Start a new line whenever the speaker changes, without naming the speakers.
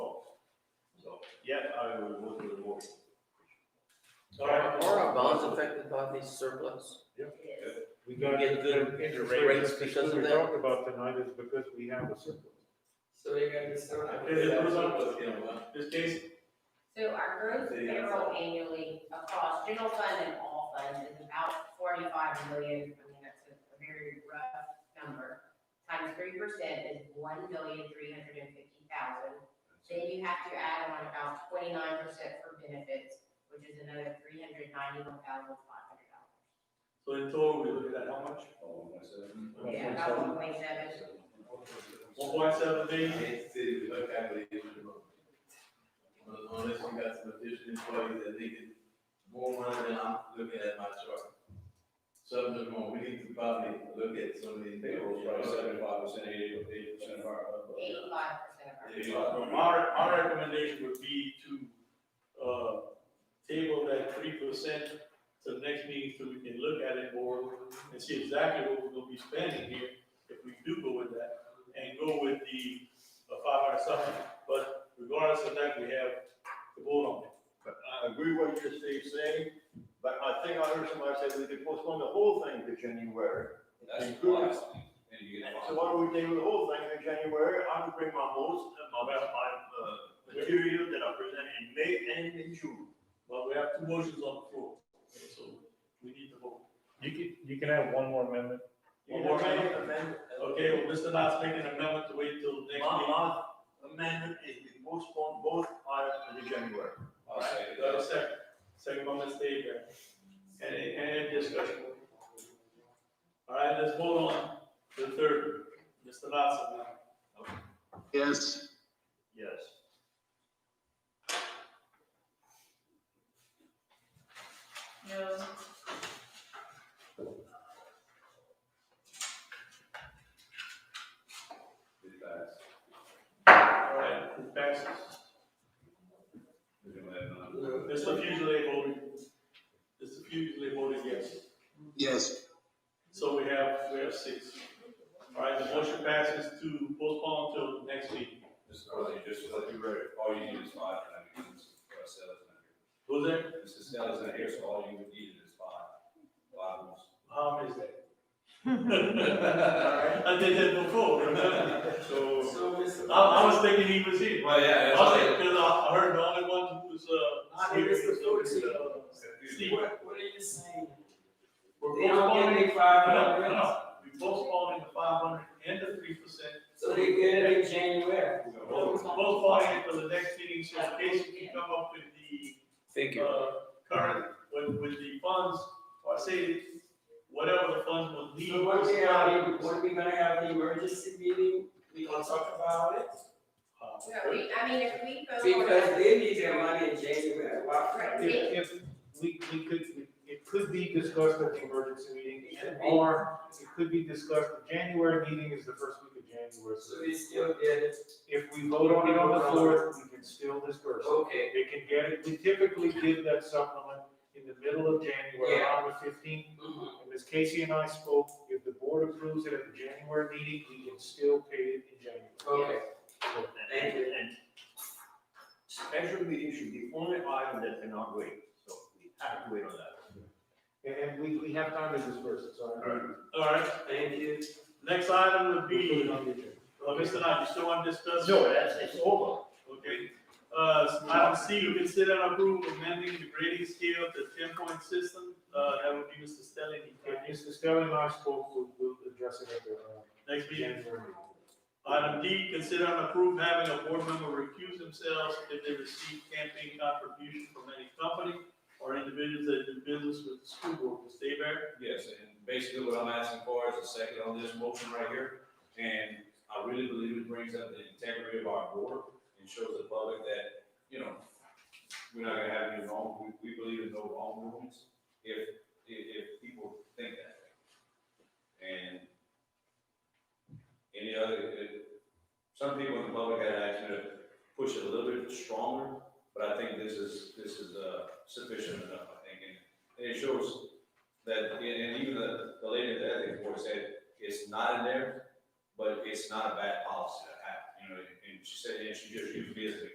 Yeah, I will look at the more.
Are,
Alright.
are our bonds affected by these surplus?
Yes.
We
can get good
interest
rates because of
We
that.
talked about tonight is because we have a surplus.
So you're gonna just throw out.
It is a surplus, This case,
So our gross
Yeah, that's all.
payroll annually across general fund and all funds is about forty-five million, I mean, that's a- a very rough number. Times three percent is one million, three hundred and fifty thousand. Then you have to add on about twenty-nine percent for benefits, which is another three hundred ninety-one thousand, five hundred dollars.
so in total, we look at how much?
Yeah, about one point seven.
One point seven million?
Kansas City, we looked at it, it was- unless you got some efficient employees that making more money than I'm looking at my chart. Something's wrong, we need to probably look at some of these payrolls, probably seventy-five percent, eighty percent of our.
Eighty-five percent of our.
My, my recommendation would be to, uh, table that three percent to the next meeting so we can look at it more and see exactly what we're gonna be spending here if we do go with that and go with the uh, five hundred something. But regardless of that, we have the vote on it.
I agree with what you're Steve saying, but I think I heard somebody say we could postpone the whole thing to January. That's wise. And so why don't we table the whole thing in January? I will bring my most, my, my, uh, material that I present in May and in June.
But we have two motions on the floor, so we need to vote.
You can, you can have one more amendment.
You know, my amendment,
Okay, well, Mr. Knopf's making an amendment to wait till next meeting.
my, my amendment is we postpone both items to January.
All right, got a second, second by Ms. Davis. Any, any discussion? All right, let's vote on the third, uh, Mr. Latson now.
yes,
Yes.
No.
It passed.
All right, it passes.
We don't have none.
Mr. Fugely voted, Mr. Fugely voted yes.
yes,
So we have, we have six. All right, the motion passes to postpone till next week.
Mr. Carly, just to let you ready, all you need is five, and I mean, Mrs. Stella's not
Who's that?
here. Mrs. Stella's not here, so all you would need is five, five votes.
How is that? I did that before, remember? So,
So Mr.
I, I was thinking he was here.
Well, yeah,
I was like, because I I heard the only one who was, uh.
I think it's Ah, the
serious, uh, Steve.
What, what are you saying?
We're
They don't get
postponing,
any five
no,
hundred
no,
grants,
no, we postponing the five hundred and the three percent.
so they get it in January.
We're postponing it for the next meeting, so in case we can come up with the,
Thank you.
uh, current, with, with the funds, or say, whatever the funds will need.
So what they are, what we gonna have the emergency meeting, we gonna talk about it?
Uh,
No, we, I mean, if we vote. on
Because
that-
they need their money in January, why?
Right.
If, if, we, we could, it could be discussed at the emergency meeting, or it could be discussed, the January meeting is the first week of January,
So
so
they still get it,
if we vote on it on the fourth, we can still disperse it.
okay.
They can get it, we typically give that supplement in the middle of January,
Yeah. Mm-hmm.
around the fifteenth, And Ms. Casey and I spoke, if the board approves it at the January meeting, we can still pay it in January.
Okay.
And, and special meeting should be only item that cannot wait, so we have to wait on that.
And, and we, we have time to disperse it, so. I-
All right,
Thank you.
next item would
We'll put
be,
it on the agenda.
uh, Mr. Knight, you still want to discuss?
No, that's, it's over.
Okay, uh, item C, we consider and approve amending the grading scale to ten point system, uh, that would be Mr. Stelling.
And Mr. Stelling and I spoke, we'll, we'll address it at the, uh,
Next meeting.
January. meeting.
Item D, consider and approve having a board member recuse themselves if they receive campaign contribution from any company or individuals that do business with the school board, Mr. Bear.
Yes, and basically what I'm asking for is a second on this motion right here. And I really believe it brings up the integrity of our board and shows the public that, you know, we're not gonna have any wrong, we, we believe in no wrong movements if, if, if people think that way. And any other, it- some people in the public had asked me to push it a little bit stronger, but I think this is, this is, uh, sufficient enough, I think. And- And it shows that, and and even the, the lady at the ethics board said, it's not in there, but it's not a bad policy to have, you know, and she said, and she just used it as an